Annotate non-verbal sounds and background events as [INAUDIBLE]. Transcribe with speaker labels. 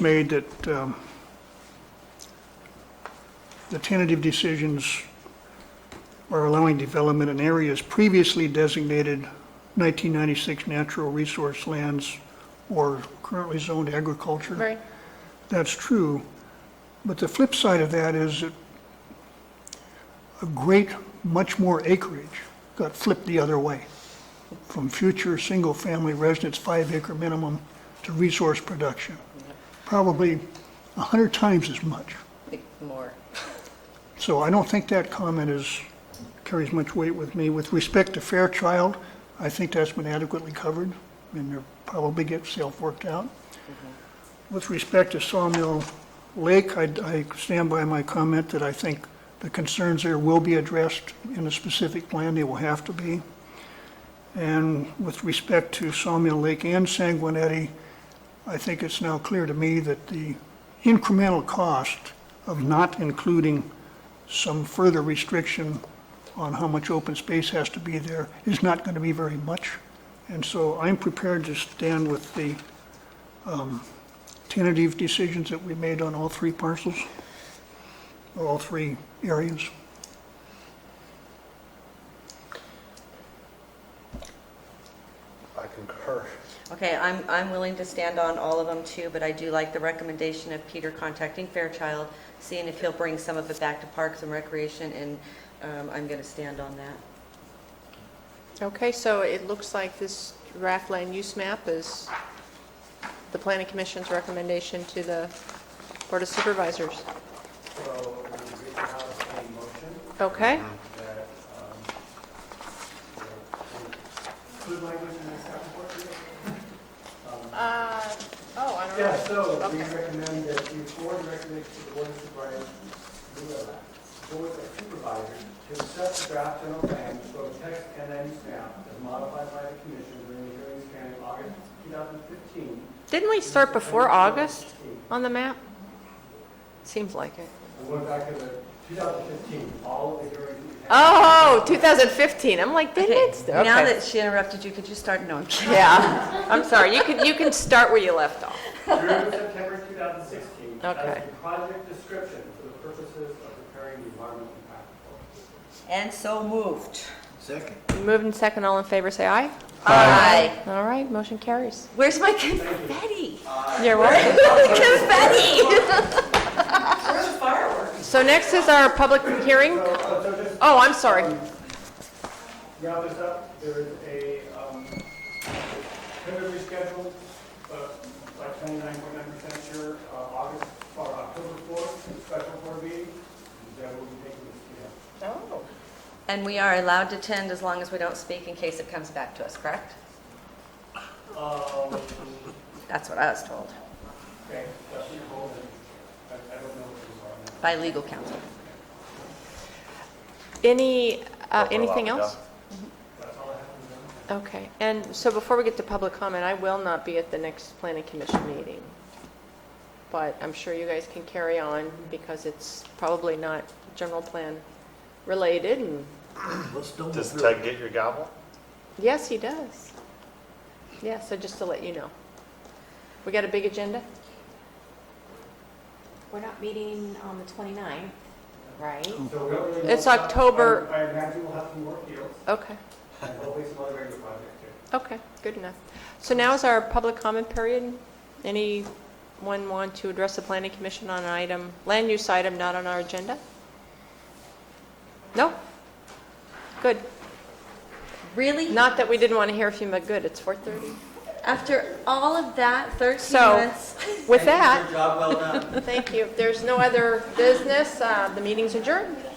Speaker 1: made that um, the tentative decisions are allowing development in areas previously designated 1996 natural resource lands or currently zoned agriculture.
Speaker 2: Right.
Speaker 1: That's true, but the flip side of that is that a great, much more acreage got flipped the other way, from future single-family residence five-acre minimum to resource production, probably 100 times as much.
Speaker 2: More.
Speaker 1: So I don't think that comment is, carries much weight with me. With respect to Fairchild, I think that's been adequately covered, and they'll probably get self-worked out. With respect to Sawmill Lake, I, I stand by my comment that I think the concerns there will be addressed in a specific plan, they will have to be. And with respect to Sawmill Lake and Sanguinetti, I think it's now clear to me that the incremental cost of not including some further restriction on how much open space has to be there is not going to be very much. And so I'm prepared to stand with the um, tentative decisions that we made on all three parcels, or all three areas.
Speaker 3: I concur.
Speaker 4: Okay, I'm, I'm willing to stand on all of them too, but I do like the recommendation of Peter contacting Fairchild, seeing if he'll bring some of it back to Parks and Recreation, and um, I'm going to stand on that.
Speaker 2: Okay, so it looks like this draft land use map is the planning commission's recommendation to the board of supervisors.
Speaker 5: So we have a motion
Speaker 2: Okay?
Speaker 5: that, um, Good language in the staff report.
Speaker 2: Uh, oh, I
Speaker 5: Yeah, so we
Speaker 2: Okay.
Speaker 5: recommend that you forward recommend to the board of supervisors, the board of supervisors, to accept the draft general plan, both text and then map, as modified by the commission during the hearing span in August 2015.
Speaker 2: Didn't we start before August on the map? Seems like it.
Speaker 5: I'm going back to the 2015, all of the hearings we had.
Speaker 2: Oh, 2015, I'm like, didn't it? st-
Speaker 4: Now
Speaker 2: okay.
Speaker 4: that she interrupted you, could you start? No, I'm kidding.
Speaker 2: Yeah, I'm sorry, you can, you can start where you left off.
Speaker 5: through September 2016
Speaker 2: Okay.
Speaker 5: as the project description for the purposes of preparing the environmental impact report.
Speaker 4: And so moved.
Speaker 3: Second.
Speaker 2: Moved and second, all in favor, say aye.
Speaker 4: Aye.
Speaker 2: All right, motion carries.
Speaker 4: Where's my [LAUGHS] confetti?
Speaker 2: You're welcome.
Speaker 4: Confetti! Where's the fireworks?
Speaker 2: So next is our public hearing.
Speaker 5: So, uh, so just
Speaker 2: Oh, I'm sorry.
Speaker 5: wrap this up, there is a, um, tentatively scheduled, but like 99.9% sure, uh, August or October 4th, special board meeting, that will be taking this, you know,
Speaker 4: And we are allowed to attend as long as we don't speak in case it comes back to us, correct?
Speaker 5: Um,
Speaker 4: That's what I was told
Speaker 5: okay, that's your goal, and I, I don't know what these are now.
Speaker 4: by legal counsel.
Speaker 2: Any, uh, anything else?
Speaker 5: That's all I have to know.
Speaker 2: Okay, and so before we get to public comment, I will not be at the next planning commission meeting. But I'm sure you guys can carry on because it's probably not general plan related and,
Speaker 3: Let's don't.
Speaker 6: Does Ted get your gavel?
Speaker 2: yes, he does. Yeah, so just to let you know. We got a big agenda?
Speaker 7: We're not meeting on the 29th, right?
Speaker 5: So we don't really know
Speaker 2: It's
Speaker 5: what's up.
Speaker 2: October-
Speaker 5: I I imagine we'll have some more deals.
Speaker 2: Okay,
Speaker 5: And hopefully some other major projects too.
Speaker 2: okay, good enough. So now is our public comment period. Anyone want to address the planning commission on an item, land use item not on our agenda? No? Good.
Speaker 4: Really?
Speaker 2: Not that we didn't want to hear from you, but good, it's 4:30.
Speaker 4: After all of that, 13
Speaker 2: So-
Speaker 4: months.
Speaker 2: With that,
Speaker 5: Job well done.
Speaker 2: thank you. If there's no other business, uh, the meeting's adjourned.